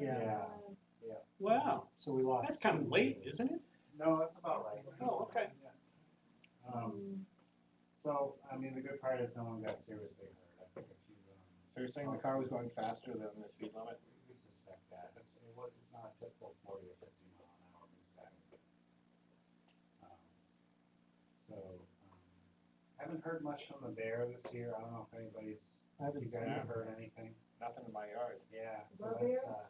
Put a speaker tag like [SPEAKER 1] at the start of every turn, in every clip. [SPEAKER 1] Yeah,
[SPEAKER 2] Wow,
[SPEAKER 1] so we lost.
[SPEAKER 2] that's kind of late, isn't it?
[SPEAKER 3] No, that's about right.
[SPEAKER 2] Oh, okay.
[SPEAKER 3] Yeah. Um, so, I mean, the good part is no one got seriously hurt. I think if you, um.
[SPEAKER 4] So you're saying the car was going faster than the speed limit?
[SPEAKER 3] We suspect that. It's, it was, it's not a typical forty or fifty mile an hour move size. Um, So, um, haven't heard much from the bear this year. I don't know if anybody's,
[SPEAKER 1] I
[SPEAKER 3] you
[SPEAKER 1] haven't
[SPEAKER 3] guys
[SPEAKER 1] seen it.
[SPEAKER 3] have heard anything?
[SPEAKER 4] Nothing in my yard.
[SPEAKER 3] Yeah,
[SPEAKER 5] The
[SPEAKER 3] so that's,
[SPEAKER 5] bear?
[SPEAKER 3] uh,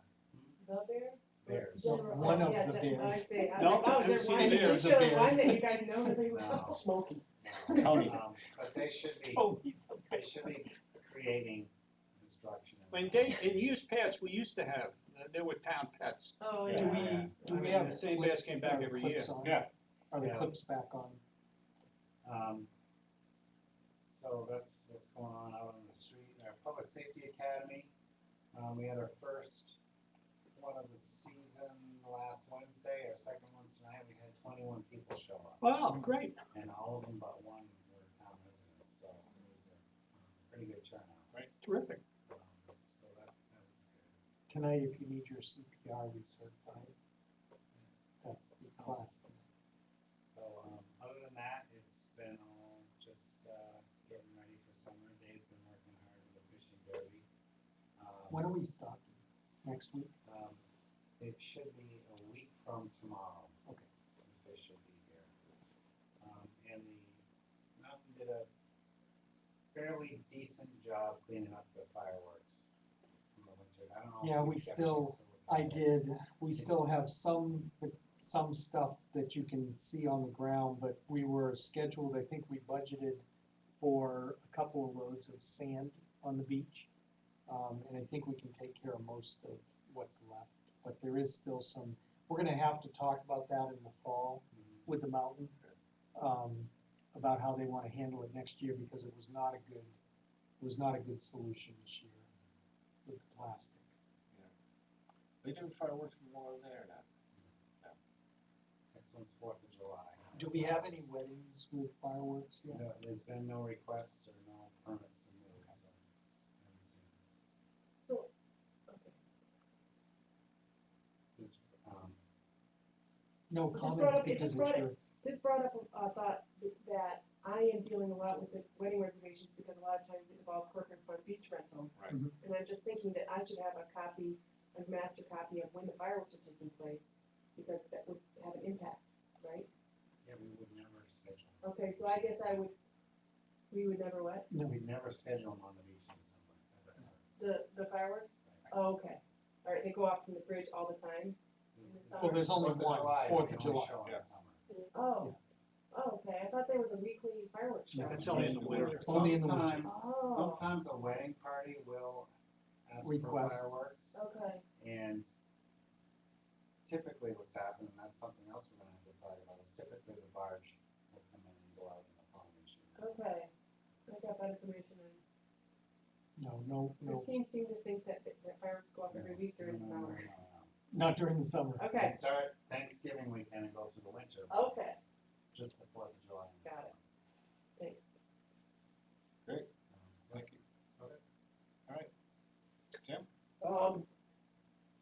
[SPEAKER 5] The bear?
[SPEAKER 3] bears.
[SPEAKER 5] General-
[SPEAKER 1] One of
[SPEAKER 5] yeah,
[SPEAKER 1] the
[SPEAKER 5] gen- I
[SPEAKER 1] bears.
[SPEAKER 5] say, I
[SPEAKER 2] No,
[SPEAKER 5] was like,
[SPEAKER 2] I've
[SPEAKER 5] oh, is
[SPEAKER 2] seen
[SPEAKER 5] there one,
[SPEAKER 2] bears,
[SPEAKER 5] is
[SPEAKER 2] the
[SPEAKER 5] there one
[SPEAKER 2] bears.
[SPEAKER 5] that you guys know really well?
[SPEAKER 3] No.
[SPEAKER 1] Smoky.
[SPEAKER 3] no.
[SPEAKER 4] Tony.
[SPEAKER 3] Um, But they should be,
[SPEAKER 2] Tony,
[SPEAKER 3] they should be creating destruction. in
[SPEAKER 2] When
[SPEAKER 3] the-
[SPEAKER 2] day, in years past, we used to have, uh, there were town pets.
[SPEAKER 5] Oh,
[SPEAKER 2] Do
[SPEAKER 5] yeah.
[SPEAKER 3] Yeah.
[SPEAKER 2] we, do we have, St. Bass came back every year.
[SPEAKER 4] Yeah.
[SPEAKER 1] Are the
[SPEAKER 3] Yeah.
[SPEAKER 1] clips back on?
[SPEAKER 3] Um, so that's what's going on out on the street. Our Public Safety Academy, um, we had our first one of the season last Wednesday, our second one tonight. We had twenty-one people show up,
[SPEAKER 2] Wow, great.
[SPEAKER 3] and all of them but one were town residents, so it was a um, pretty good turnout.
[SPEAKER 4] Right.
[SPEAKER 2] Terrific.
[SPEAKER 3] Um, So that, that was good.
[SPEAKER 1] Tonight, if you need your CPR, we certify it. That's the class.
[SPEAKER 3] So, um, other than that, it's been all just, uh, getting ready for summer. Dave's been working hard with the fishing derby. Um,
[SPEAKER 1] When are we stopping? Next week?
[SPEAKER 3] Um, it should be a week from tomorrow. Okay. The fish should be here. Um, and the mountain did a fairly decent job cleaning up the fireworks from the winter. I don't know. if
[SPEAKER 1] Yeah,
[SPEAKER 3] you
[SPEAKER 1] we
[SPEAKER 3] got a chance
[SPEAKER 1] still-
[SPEAKER 3] to look
[SPEAKER 1] I
[SPEAKER 3] at it.
[SPEAKER 1] did, we still
[SPEAKER 3] It's-
[SPEAKER 1] have some, some stuff that you can see on the ground, but we were scheduled, I think we budgeted for a couple of loads of sand on the beach. Um, and I think we can take care of most of what's left, but there is still some, we're gonna have to talk about that in the fall
[SPEAKER 3] Mhm.
[SPEAKER 1] with the mountain, um, about how they wanna handle it next year, because it was not a good, it was not a good solution this year with the plastic.
[SPEAKER 4] They do fireworks more there now.
[SPEAKER 3] Next one's Fourth of July.
[SPEAKER 1] Do we have any weddings with fireworks yet?
[SPEAKER 3] No, there's been no requests or no permits submitted, so. I haven't seen it.
[SPEAKER 5] So, okay.
[SPEAKER 3] There's, um,
[SPEAKER 1] No
[SPEAKER 5] It just brought
[SPEAKER 1] comments
[SPEAKER 5] up- it
[SPEAKER 1] because
[SPEAKER 5] just
[SPEAKER 1] it's
[SPEAKER 5] brought
[SPEAKER 1] your,
[SPEAKER 5] This brought up a a thought th- that I am dealing a lot with the wedding reservations because a lot of times it involves corporate for beach rental.
[SPEAKER 4] Right.
[SPEAKER 1] Mhm.
[SPEAKER 5] And I'm just thinking that I should have a copy, a master copy of when the fireworks are taking place, because that would have an impact, right?
[SPEAKER 3] yeah, we would never schedule.
[SPEAKER 5] Okay, so I guess I would, we would never what?
[SPEAKER 1] no,
[SPEAKER 3] We'd never schedule them on the beach in December. Never, ever.
[SPEAKER 5] The, the fireworks? Oh, okay. All right, they go off from the bridge all the time?
[SPEAKER 3] This is-
[SPEAKER 1] well, there's only
[SPEAKER 3] Fourth of
[SPEAKER 1] one,
[SPEAKER 3] July is
[SPEAKER 1] Fourth
[SPEAKER 3] the
[SPEAKER 1] of
[SPEAKER 3] only
[SPEAKER 1] July.
[SPEAKER 3] show in
[SPEAKER 4] yeah.
[SPEAKER 3] the summer.
[SPEAKER 5] Oh, oh, okay, I thought there was a weekly fireworks show.
[SPEAKER 1] No.
[SPEAKER 2] That's only in the winter.
[SPEAKER 1] It's only in the winter.
[SPEAKER 3] Sometimes-
[SPEAKER 5] Oh.
[SPEAKER 3] Sometimes a wedding party will ask for
[SPEAKER 1] Request.
[SPEAKER 3] fireworks,
[SPEAKER 5] Okay,
[SPEAKER 3] and typically what's happened, and that's something else we're gonna have to talk about, is typically the barge will come in and go out in the pond and shoot.
[SPEAKER 5] okay. I got that information and
[SPEAKER 1] no, no, no,
[SPEAKER 5] Christine seemed to think that, that that fireworks go off every week during the
[SPEAKER 3] No, no, no,
[SPEAKER 5] summer.
[SPEAKER 3] no, no.
[SPEAKER 1] not during the summer.
[SPEAKER 3] They
[SPEAKER 5] Okay,
[SPEAKER 3] start Thanksgiving weekend and go through the winter,
[SPEAKER 5] okay,
[SPEAKER 3] just the Fourth of July. and
[SPEAKER 5] Got
[SPEAKER 3] so
[SPEAKER 5] it. thanks.
[SPEAKER 3] on. Um, so
[SPEAKER 4] Thank you. All right. Jim?
[SPEAKER 6] Um,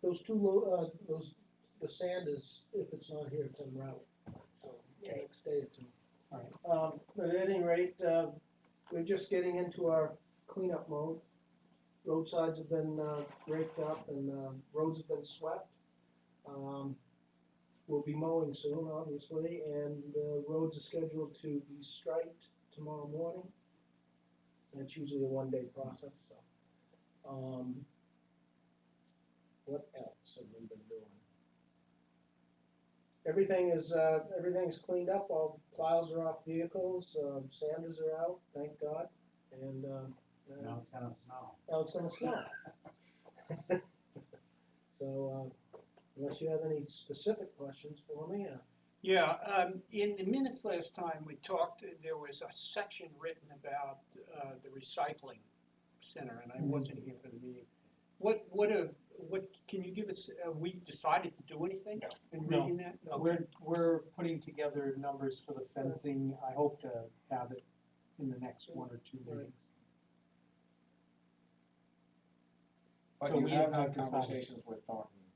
[SPEAKER 6] those two, lo- uh, those, the sand is, if it's not here, it's en route, so the
[SPEAKER 5] Yeah.
[SPEAKER 6] next day or two.
[SPEAKER 1] Alright.
[SPEAKER 6] Um, but at any rate, uh, we're just getting into our cleanup mode. Roadsides have been, uh, raked up and, uh, roads have been swept. Um, we'll be mowing soon, obviously, and the roads are scheduled to be striped tomorrow morning. That's usually a one-day process, so. Um, what else have we been doing? Everything is, uh, everything's cleaned up, all plows are off vehicles, um, sanders are out, thank God, and, um, uh,
[SPEAKER 3] Now it's gonna snow.
[SPEAKER 6] now it's gonna snow. So, uh, unless you have any specific questions for me, uh,
[SPEAKER 2] Yeah, um, in the minutes last time we talked, there was a section written about, uh, the recycling center, and I
[SPEAKER 1] Mhm.
[SPEAKER 2] wasn't here for the meeting. What, what a, what, can you give us, uh, we decided to do anything
[SPEAKER 4] No.
[SPEAKER 2] in
[SPEAKER 1] No.
[SPEAKER 2] reading that? Okay.
[SPEAKER 1] We're, we're putting together numbers for the fencing, I hope to have it in the next one or two
[SPEAKER 6] Right.
[SPEAKER 1] meetings.
[SPEAKER 4] But
[SPEAKER 1] So
[SPEAKER 4] you
[SPEAKER 1] we
[SPEAKER 4] have
[SPEAKER 1] have
[SPEAKER 4] had
[SPEAKER 1] not decided.
[SPEAKER 4] conversations with Thornton